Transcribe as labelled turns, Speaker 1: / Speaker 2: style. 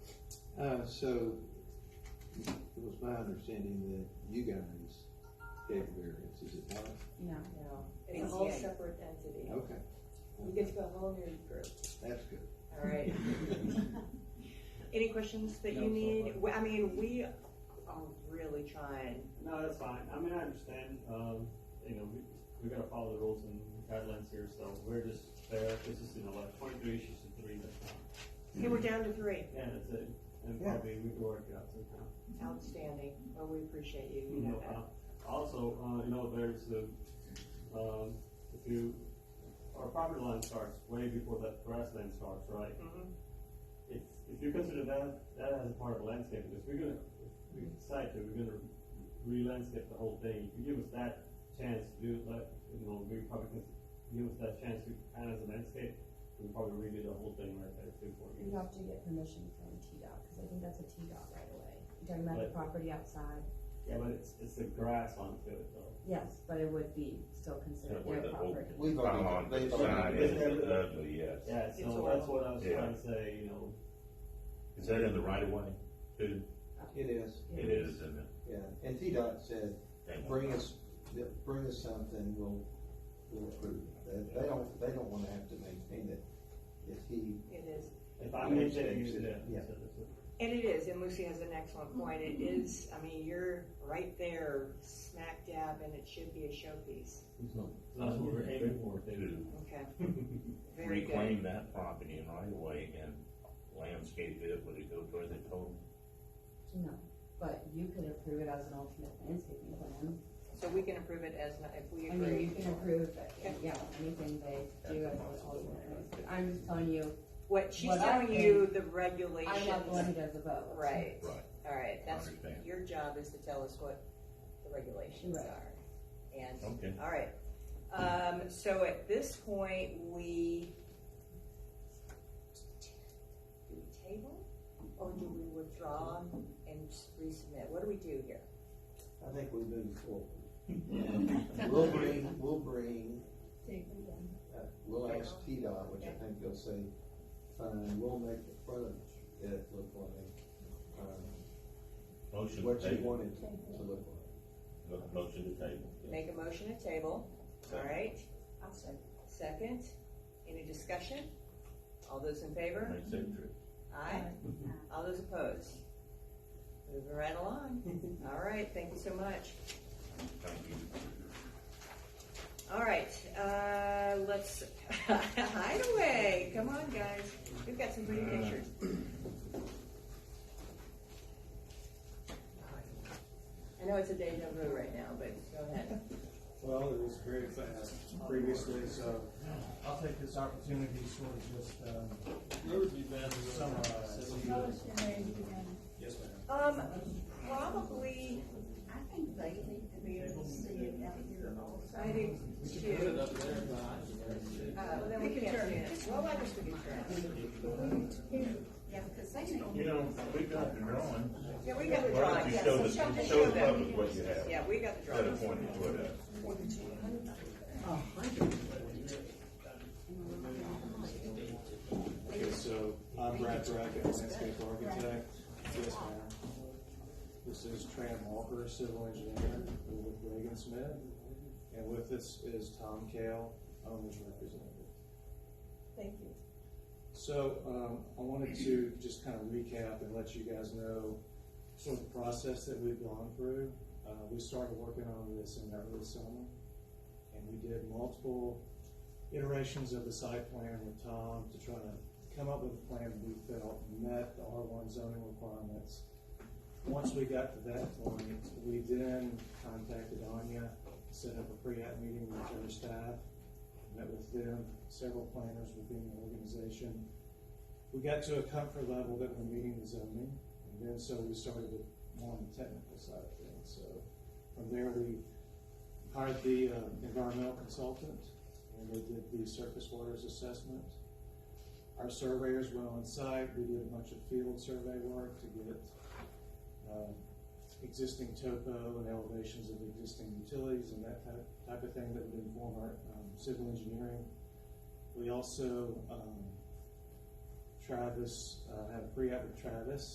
Speaker 1: Uh, so, it was my understanding that you guys gave variance, is it not?
Speaker 2: No,
Speaker 3: No, it's a whole
Speaker 2: NCA.
Speaker 3: separate entity.
Speaker 1: Okay,
Speaker 3: You get to go whole new group,
Speaker 1: that's good.
Speaker 3: all right?
Speaker 4: Any questions that
Speaker 1: No,
Speaker 4: you
Speaker 1: so
Speaker 4: need?
Speaker 1: far.
Speaker 4: We- I mean, we are really trying.
Speaker 5: No, that's fine. I mean, I understand, um, you know, we, we gotta follow the rules and guidelines here, so we're just there. This is, you know, like twenty-three issues to three, that's fine.
Speaker 4: Hey, we're down to three.
Speaker 5: Yeah, that's it. And
Speaker 1: Yeah.
Speaker 5: probably we can work it out somehow.
Speaker 4: Outstanding. Well, we appreciate you. You
Speaker 5: You
Speaker 4: know
Speaker 5: know,
Speaker 4: that.
Speaker 5: uh, Also, uh, you know, there's the, um, if you, our property line starts way before that grassland starts, right?
Speaker 4: Mhm.
Speaker 5: If, if you consider that, that as a part of landscape, because we're gonna, if we decide to, we're gonna re-landscape the whole thing. If you give us that chance to do that, you know, we probably can, give us that chance to add as a landscape, we probably redo the whole thing right there too for
Speaker 2: you
Speaker 5: you.
Speaker 2: have to get permission from TDOT, because I think that's a TDOT right away. You're talking about the
Speaker 5: Right.
Speaker 2: property outside,
Speaker 5: Yeah, but it's, it's the grass onto it though.
Speaker 2: yes, but it would be still considered
Speaker 6: where
Speaker 2: their
Speaker 6: the old
Speaker 2: property.
Speaker 1: We've already-
Speaker 6: pylon
Speaker 1: they've
Speaker 6: sign
Speaker 1: already-
Speaker 6: is, it's ugly, yes.
Speaker 5: Yeah,
Speaker 4: It's
Speaker 5: so that's
Speaker 4: all-
Speaker 5: what I was
Speaker 6: Yeah.
Speaker 5: trying to say, you know,
Speaker 6: Is that in the right of way? It
Speaker 2: Uh,
Speaker 1: It is,
Speaker 2: Yeah.
Speaker 6: it is, isn't it?
Speaker 1: yeah, and T-Dot said,
Speaker 6: Thank you.
Speaker 1: bring us, bring us something, we'll, we'll approve it. They- They don't, they don't wanna have to maintain it if he,
Speaker 4: It is.
Speaker 5: if I'm
Speaker 1: Yeah,
Speaker 5: hitting
Speaker 1: it's-
Speaker 5: you, yeah.
Speaker 1: yeah.
Speaker 5: so that's it.
Speaker 4: And it is, and Lucy has an excellent point. It is, I mean, you're right there, smack dab, and it should be a showpiece.
Speaker 5: That's what we're aiming for,
Speaker 6: To
Speaker 4: Okay, very good.
Speaker 6: reclaim that property in right of way and landscape it, would it go toward the total?
Speaker 2: No, but you could approve it as an alternate landscaping plan.
Speaker 4: So we can approve it as, not- if we
Speaker 2: I mean, you
Speaker 4: agree.
Speaker 2: can approve,
Speaker 4: Okay.
Speaker 2: yeah, anything they do as an alternate landscape. I'm just telling you,
Speaker 4: What, she's
Speaker 2: What I
Speaker 4: telling you
Speaker 2: think-
Speaker 4: the
Speaker 2: I'm not the one who
Speaker 4: regulations.
Speaker 2: does the vote.
Speaker 4: Right,
Speaker 6: Right.
Speaker 4: all right, that's,
Speaker 6: understand.
Speaker 4: your job is to tell us what the regulations
Speaker 2: Right.
Speaker 4: are. And,
Speaker 6: Okay.
Speaker 4: all right. Um, so at this point, we. Do we table or do we withdraw and resubmit? What do we do here?
Speaker 1: I think we move forward. And We'll bring, we'll bring Uh, We'll ask T-Dot, which I think they'll say, fine, we'll make the front of it look like, um,
Speaker 6: Motion to
Speaker 1: what you
Speaker 6: table.
Speaker 1: want it to look like.
Speaker 6: Mo- Motion to table.
Speaker 4: Make a motion to table, all right?
Speaker 3: I'll second.
Speaker 4: Second, any discussion? All those in favor?
Speaker 6: Makes it true.
Speaker 4: Aye. All those opposed? Moving right along. All right, thank you so much.
Speaker 6: Thank you.
Speaker 4: All right, uh, let's, hideaway, come on, guys. We've got some pretty pictures. I know it's a deja vu right now, but go ahead.
Speaker 7: Well, it was very fast previously, so I'll take this opportunity to sort of just, um, summarize. Yes, ma'am.
Speaker 4: Um, probably,
Speaker 8: I think they need to be able to see it out here also.
Speaker 4: I think, two. Uh, then we can't see it. Well, I guess we can try.
Speaker 8: Yeah, because they need.
Speaker 6: You know, we got the drawing.
Speaker 4: Yeah, we got the
Speaker 6: Why
Speaker 4: drawing,
Speaker 6: don't you
Speaker 4: yeah,
Speaker 6: show
Speaker 4: so
Speaker 6: the,
Speaker 4: show, just
Speaker 6: show
Speaker 4: show
Speaker 6: the
Speaker 4: them.
Speaker 6: public what you have?
Speaker 4: Yeah, we got the
Speaker 6: Instead of
Speaker 4: drawing.
Speaker 6: pointing toward us.
Speaker 7: Okay, so I'm Brad Brackett, landscape architect. Yes, ma'am. This is Tran Walker, civil engineer with Reagan Smith. And with us is Tom Kale, owner's representative.
Speaker 3: Thank you.
Speaker 7: So, um, I wanted to just kind of recap and let you guys know sort of the process that we've gone through. Uh, we started working on this in early summer, and we did multiple iterations of the site plan with Tom to try to come up with a plan we felt met the R one zoning requirements. Once we got to that point, we then contacted Anya, set up a pre-app meeting with her staff, met with them, several planners within the organization. We got to a comfort level that we're meeting the zoning, and then so we started with more on the technical side of things. So from there, we hired the uh, environmental consultant, and they did the surface waters assessment. Our surveyors went on site, we did a bunch of field survey work to get um, existing topo and elevations of existing utilities and that type, type of thing that would inform our um, civil engineering. We also, um, Travis, uh, had a pre-app with Travis,